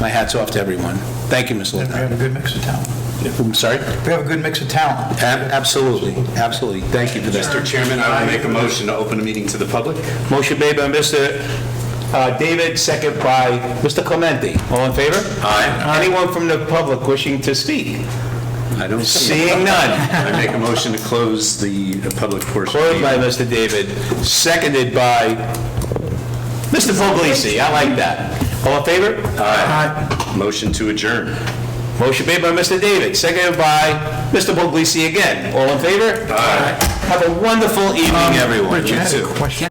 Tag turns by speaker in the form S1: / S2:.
S1: my hat's off to everyone. Thank you, Ms.
S2: We have a
S1: Lopez.
S2: good mix of talent.
S1: I'm sorry?
S2: We have a good mix of talent.
S1: A- Absolutely, absolutely. Thank you for
S3: Mr.
S1: that.
S3: Chairman, I will make a motion to open the meeting to the public.
S1: Motion made by Mr. uh, David, second by Mr. Clemente. All in favor? Aye. Anyone from the public wishing to speak?
S3: I don't see.
S1: Seeing none.
S3: I make a motion to close the uh, public portion. of the
S1: Closed by Mr. David, seconded by Mr. Foglisi. I like that. All in favor?
S3: meeting. Motion to adjourn.
S1: Motion made by Mr. David, seconded by Mr. Boglisi again. All in favor? Aye. Have a wonderful evening, everyone.
S2: I had a question.